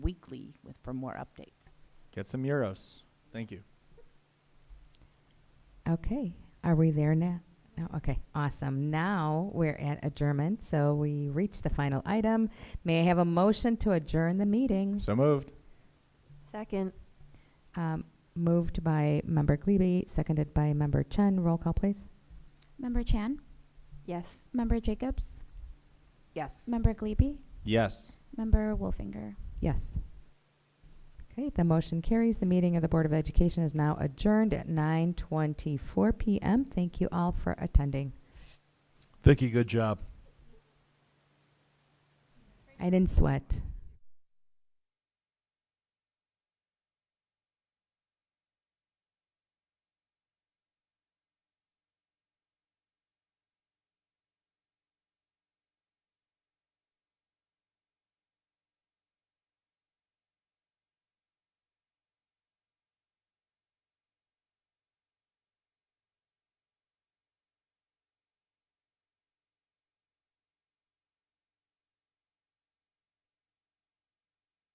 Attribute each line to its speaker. Speaker 1: weekly with, for more updates.
Speaker 2: Get some euros. Thank you.
Speaker 3: Okay, are we there now? No, okay, awesome. Now we're at adjournment, so we reached the final item. May I have a motion to adjourn the meeting?
Speaker 2: So moved.
Speaker 4: Second.
Speaker 3: Um, Moved by Member Glebe, seconded by Member Chen. Roll call, please.
Speaker 5: Member Chan,
Speaker 4: Yes.
Speaker 5: Member Jacobs,
Speaker 1: Yes.
Speaker 5: Member Glebe,
Speaker 2: Yes.
Speaker 5: Member Wolfinger.
Speaker 3: Yes. Okay, the motion carries. The meeting of the Board of Education is now adjourned at 9:24 PM. Thank you all for attending.
Speaker 6: Vicky, good job.
Speaker 3: I didn't sweat.